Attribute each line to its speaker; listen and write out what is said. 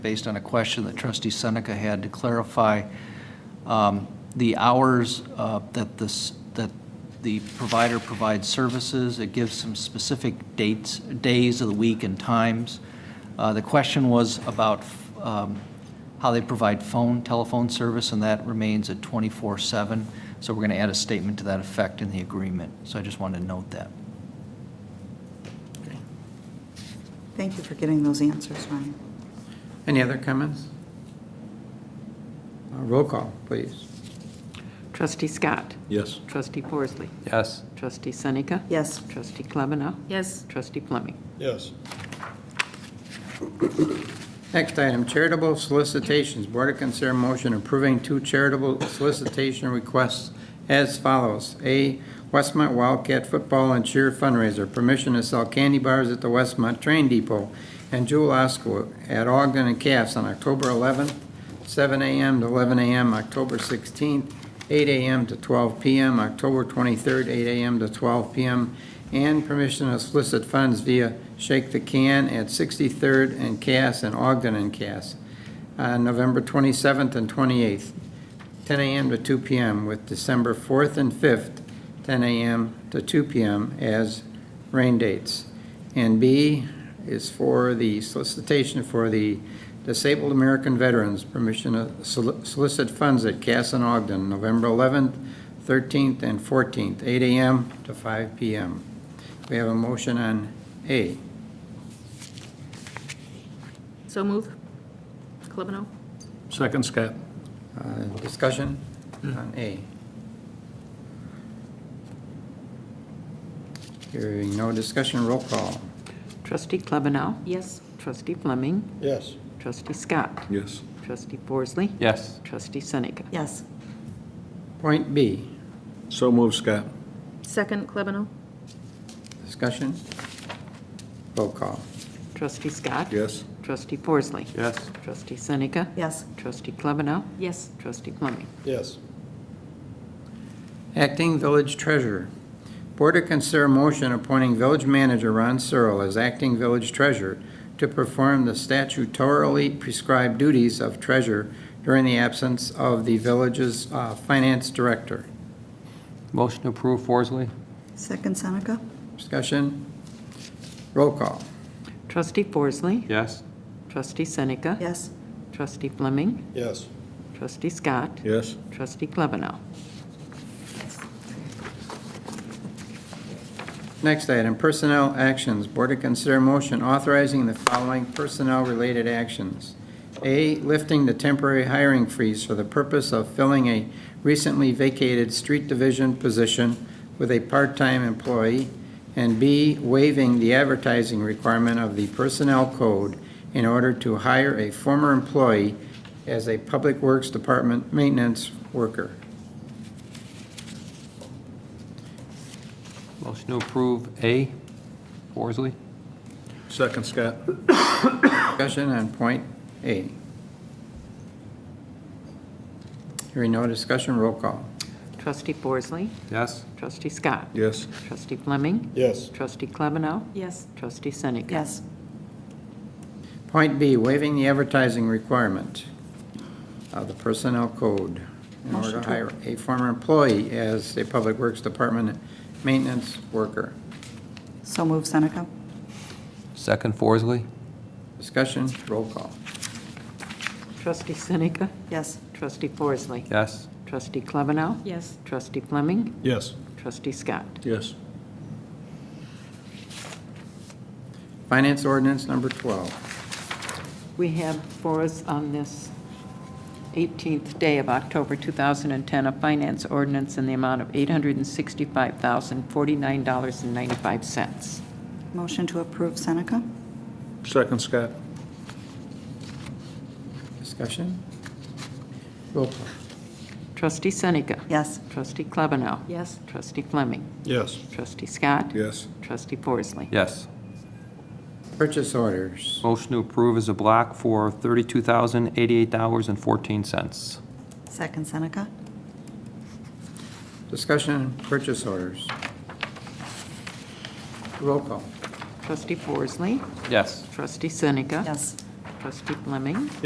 Speaker 1: based on a question that trustee Seneca had to clarify um, the hours uh, that this, that the provider provides services. It gives some specific dates, days of the week and times. Uh, The question was about um, how they provide phone, telephone service, and that remains at 24/7. So we're going to add a statement to that effect in the agreement. So I just wanted to note that.
Speaker 2: Thank you for getting those answers, Ryan.
Speaker 3: Any other comments? Uh, Roll call, please.
Speaker 4: Trustee Scott.
Speaker 5: Yes.
Speaker 4: Trustee Forsley.
Speaker 3: Yes.
Speaker 4: Trustee Seneca.
Speaker 2: Yes,
Speaker 4: Trustee Klebanow.
Speaker 6: Yes,
Speaker 4: Trustee Fleming.
Speaker 5: Yes.
Speaker 3: Next item, charitable solicitations. Board to consider motion approving two charitable solicitation requests as follows. A, Westmont Wildcat Football and Cheer fundraiser, permission to sell candy bars at the Westmont Train Depot and Jewel Osco at Ogden and Cass on October 11th, 7 a.m. to 11 a.m., October 16th, 8 a.m. to 12 p.m., October 23rd, 8 a.m. to 12 p.m., and permission to solicit funds via Shake the Can at 63rd and Cass and Ogden and Cass on November 27th and 28th, 10 a.m. to 2 p.m., with December 4th and 5th, 10 a.m. to 2 p.m. as rain dates. And B is for the solicitation for the Disabled American Veterans, permission to soli- solicit funds at Cass and Ogden, November 11th, 13th, and 14th, 8 a.m. to 5 p.m. We have a motion on A.
Speaker 6: so move. Klebanow?
Speaker 5: Second, Scott.
Speaker 3: Uh, Discussion on A. Hearing no discussion, roll call.
Speaker 4: Trustee Klebanow.
Speaker 6: Yes.
Speaker 4: Trustee Fleming.
Speaker 5: Yes.
Speaker 4: Trustee Scott.
Speaker 5: Yes.
Speaker 4: Trustee Forsley.
Speaker 3: Yes.
Speaker 4: Trustee Seneca.
Speaker 2: yes,
Speaker 3: Point B,
Speaker 5: So move, Scott.
Speaker 6: Second, Klebanow?
Speaker 3: discussion. Roll call.
Speaker 4: Trustee Scott.
Speaker 5: Yes.
Speaker 4: Trustee Forsley.
Speaker 5: Yes.
Speaker 4: Trustee Seneca.
Speaker 2: yes,
Speaker 4: Trustee Klebanow.
Speaker 6: Yes.
Speaker 4: Trustee Fleming.
Speaker 5: Yes.
Speaker 3: Acting Village Treasurer. Board to consider motion appointing Village Manager Ron Searle as acting Village Treasurer to perform the statutorily prescribed duties of treasurer during the absence of the village's uh, finance director.
Speaker 7: Motion to approve Forsley?
Speaker 2: second Seneca,
Speaker 3: Discussion? Roll call.
Speaker 4: Trustee Forsley.
Speaker 7: Yes.
Speaker 4: Trustee Seneca.
Speaker 2: yes,
Speaker 4: Trustee Fleming.
Speaker 5: Yes.
Speaker 4: Trustee Scott.
Speaker 5: Yes.
Speaker 4: Trustee Klebanow.
Speaker 3: Next item, personnel actions. Board to consider motion authorizing the following personnel-related actions. A, lifting the temporary hiring freeze for the purpose of filling a recently vacated street division position with a part-time employee. And B, waiving the advertising requirement of the personnel code in order to hire a former employee as a Public Works Department maintenance worker.
Speaker 7: Motion to approve A, Forsley?
Speaker 5: Second, Scott.
Speaker 3: Discussion on point A. Hearing no discussion, roll call.
Speaker 4: Trustee Forsley.
Speaker 7: Yes.
Speaker 4: Trustee Scott.
Speaker 5: Yes.
Speaker 4: Trustee Fleming.
Speaker 5: Yes.
Speaker 4: Trustee Klebanow.
Speaker 6: Yes.
Speaker 4: Trustee Seneca.
Speaker 2: yes,
Speaker 3: Point B, waiving the advertising requirement of the personnel code in order to hire a former employee as a Public Works Department maintenance worker.
Speaker 2: so move Seneca,
Speaker 7: Second Forsley?
Speaker 3: Discussion, roll call.
Speaker 4: Trustee Seneca.
Speaker 2: yes,
Speaker 4: Trustee Forsley.
Speaker 7: Yes.
Speaker 4: Trustee Klebanow.
Speaker 6: Yes.
Speaker 4: Trustee Fleming.
Speaker 5: Yes.
Speaker 4: Trustee Scott.
Speaker 5: Yes.
Speaker 3: Finance ordinance number 12.
Speaker 4: We have for us on this 18th day of October 2010, a finance ordinance in the amount of $865,049.95.
Speaker 2: motion to approve Seneca,
Speaker 5: Second, Scott.
Speaker 3: Discussion? Roll call.
Speaker 4: Trustee Seneca.
Speaker 2: yes,
Speaker 4: Trustee Klebanow.
Speaker 6: Yes.
Speaker 4: Trustee Fleming.
Speaker 5: Yes.
Speaker 4: Trustee Scott.
Speaker 5: Yes.
Speaker 4: Trustee Forsley.
Speaker 7: Yes.
Speaker 3: Purchase orders.
Speaker 7: Motion to approve is a block for $32,088.14.
Speaker 2: second Seneca,
Speaker 3: Discussion, on purchase orders. Roll call.
Speaker 4: Trustee Forsley.
Speaker 7: Yes.
Speaker 4: Trustee Seneca.
Speaker 2: yes,
Speaker 4: trustee Fleming.